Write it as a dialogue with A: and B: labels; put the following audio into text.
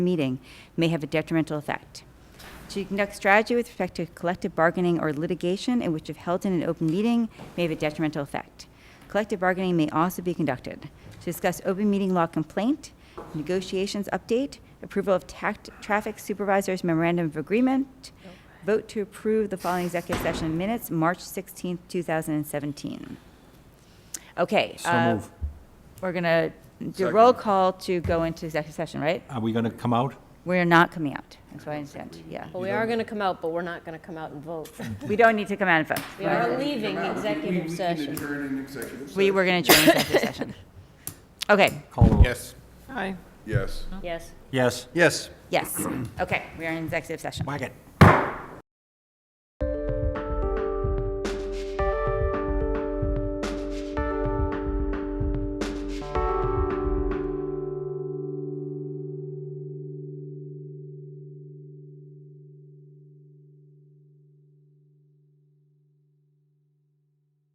A: meeting may have a detrimental effect. To conduct strategy with respect to collective bargaining or litigation in which if held in an open meeting may have a detrimental effect. Collective bargaining may also be conducted. To discuss open meeting law complaint, negotiations update, approval of tact, traffic supervisors memorandum of agreement, vote to approve the following executive session minutes, March 16th, 2017. Okay.
B: So
A: uh,
B: move.
A: We're going to do a roll call to go into executive session, right?
B: Are we going to come out?
A: We're not coming out, that's what I understand, yeah.
C: Well, we are going to come out, but we're not going to come out and vote.
A: We don't need to come out and vote.
C: We are leaving executive
D: We can
C: session.
D: adjourn an executive session.
A: We were going to join executive session. Okay,
B: Call the roll.
D: Yes. Aye. Yes.
C: Yes.
B: Yes.
D: Yes.
A: yes, okay, we are in executive session.
B: Whack it.